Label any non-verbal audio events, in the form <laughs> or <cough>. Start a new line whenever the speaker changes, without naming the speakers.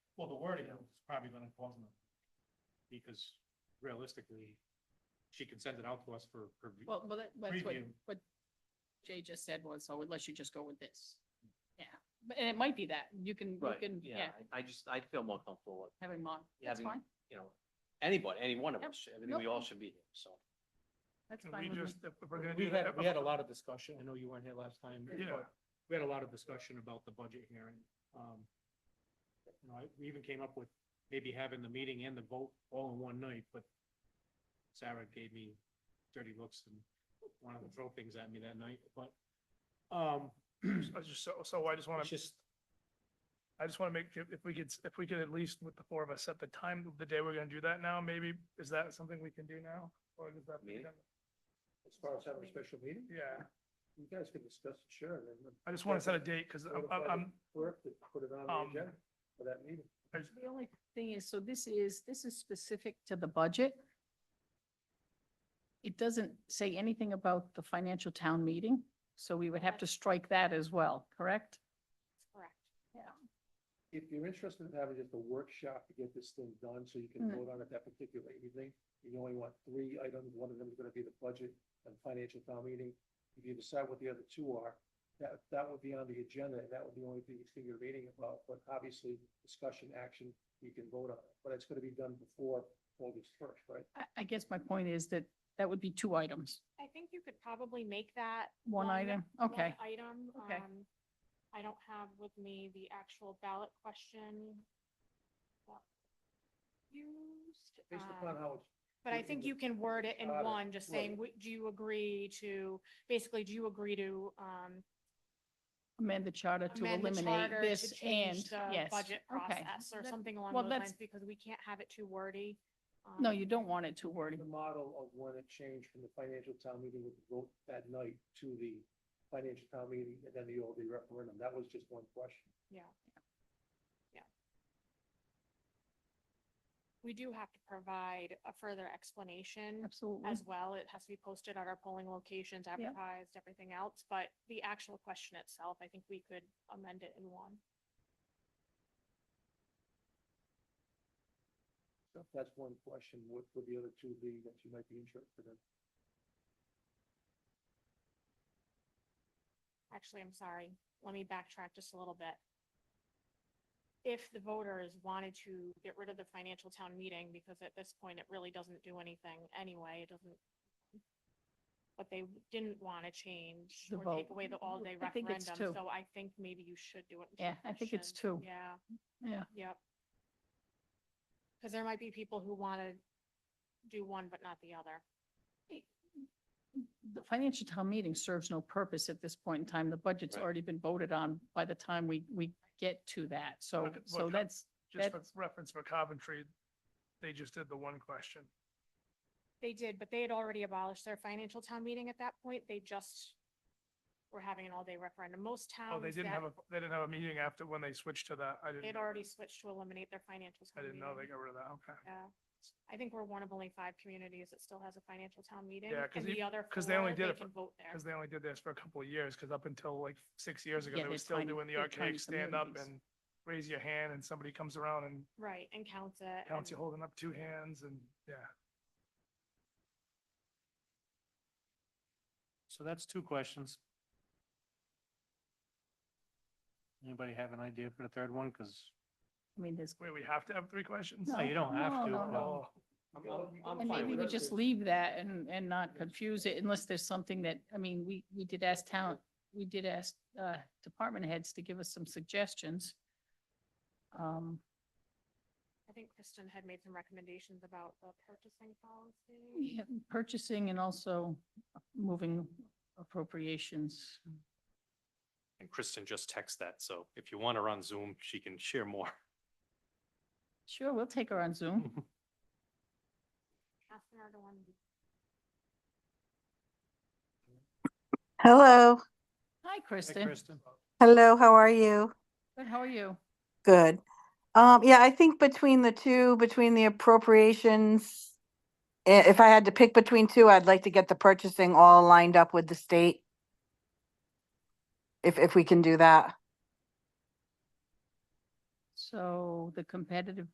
the wording, it's probably gonna cause them. Because realistically, she can send it out to us for for re-
Well, well, that- that's what,
preview.
what Jay just said was, so unless you just go with this. Yeah, but, and it might be that, you can, you
Right,
can,
yeah,
yeah,
I I just, I feel more comfortable with,
having mom, that's
Having-
fine,
you know, anybody, any one of
Yep,
us, I mean, we
nope.
all should be here, so.
that's
And
fine
We
with me.
just, if we're gonna
We
do
had,
that.
we had a lot of discussion. I know you weren't here last time.
Yeah.
but
We had a lot of discussion about the budget hearing. Um, You know, I- we even came up with maybe having the meeting and the vote all in one night, but Sarah gave me dirty looks and wanted to throw things at me that night, but, um,
I was just, so, so I just want
It's
to,
just,
I just want to make, if if we could, if we could at least with the four of us set the time of the day we're going to do that now, maybe, is that something we can do now? Or does that? be
Meeting?
done?
as far as having a special meeting,
Yeah,
you guys can discuss it, sure, and then
I just want to set a date because I'm,
notify
I'm-
the
I'm,
clerk to put it on
Um,
the agenda for that meeting.
I-
The only thing is, so this is, this is specific to the budget. It doesn't say anything about the financial town meeting, so we would have to strike that as well, correct?
Correct.
If you're interested in having just a workshop to get this thing done, so you can
Mm.
vote on it that particular evening, you only want three items, one of them is gonna be the budget and financial town meeting. If you decide what the other two are, that, that would be on the agenda, and that would be the only thing you're reading about, but obviously, discussion, action, you can vote on it, but it's gonna be done before August first, right?
I, I guess my point is that that would be two items,
I think you could probably make that.
one item, okay.
one Item.
Okay.
Um, I don't have with me the actual ballot question. that Used.
Based
um,
upon how it's
But I
Within
think
the
you can word it in
charter,
one, just saying,
right.
"Would- do you agree to, basically, do you agree to, um,
amend the charter to
amend the
eliminate
charter
this
to
and,
change the
yes.
budget
okay.
process or
That-
something along
well,
those
that's-
lines? Because we can't have it too wordy.
No,
um,
you don't want it too wordy.
the model of when it changed from the financial town meeting with the vote that night to the financial town meeting and then the all day referendum. That was just one question.
Yeah. Yeah. We do have to provide a further explanation
Absolutely.
as well. It has to be posted at our polling locations, advertised, everything else. But the actual question itself, I think we could amend it in one.
So That's one question. What would the other two be that you might be interested in?
Actually, I'm sorry. Let me backtrack just a little bit. If the voters wanted to get rid of the financial town meeting, because at this point, it really doesn't do anything anyway, it doesn't. But they didn't want to change
The
or take
vote.
away the all-day
I think
referendum,
it's two.
so I think maybe you should do it. in two
Yeah, I think it's two.
questions. Yeah.
Yeah.
Yep. Because there might be people who want to do one but not the other.
The financial town meeting serves no purpose at this point in time. The budget's
Right.
already been voted on by the time we, we get to that. So,
Look at-
uh,
so
look at-
that's,
just for reference for Coventry, they just did the one question.
They did, but they had already abolished their financial town meeting at that point. They just were having an all-day referendum. Most
Oh,
towns
they didn't
that,
have a, they didn't have a meeting after when they switched to that. I didn't.
they'd
know.
already switched to eliminate their financial
I
town
didn't know they
meeting.
got rid of that. Okay.
Yeah. I think we're one of only five communities that still has a financial town meeting.
Yeah, 'cause
And
e-
the other
'cause they only
four,
did
they
it for-
can vote there.
Because they only did this for a couple of years, because up until like six years ago,
Yeah,
they
they're
were still
tiny-
doing the
they're tiny
archaic stand up
communities.
and raise your hand and somebody comes around and
Right, and counts it.
counts you
and-
holding up two hands and, yeah.
so that's two questions. Anybody have an idea for the third one? Cause,
I mean, there's.
Wait, we have to have three questions?
no, you don't have
No,
to.
no,
but-
no.
Oh,
I'm, I'm- I'm
And
fine
maybe
with
we
it.
just leave that and, and not confuse it unless there's something that, I mean, we, we did ask town, we did ask, uh, department heads to give us some suggestions. Um,
I think Kristen had made some recommendations about the purchasing policy.
yeah, purchasing and also moving appropriations.
And Kristen just texted that, so if you want her on Zoom, she can share more.
Sure, we'll take her on Zoom.
<laughs>
Catherine or the one-
Hello,
Hi,
Hey,
Kristen.
Kristen.
hello, how are you?
Good, how are you?
Good. Um, yeah, I think between the two, between the appropriations, i- if I had to pick between two, I'd like to get the purchasing all lined up with the state. If, if we can do that.
So the competitive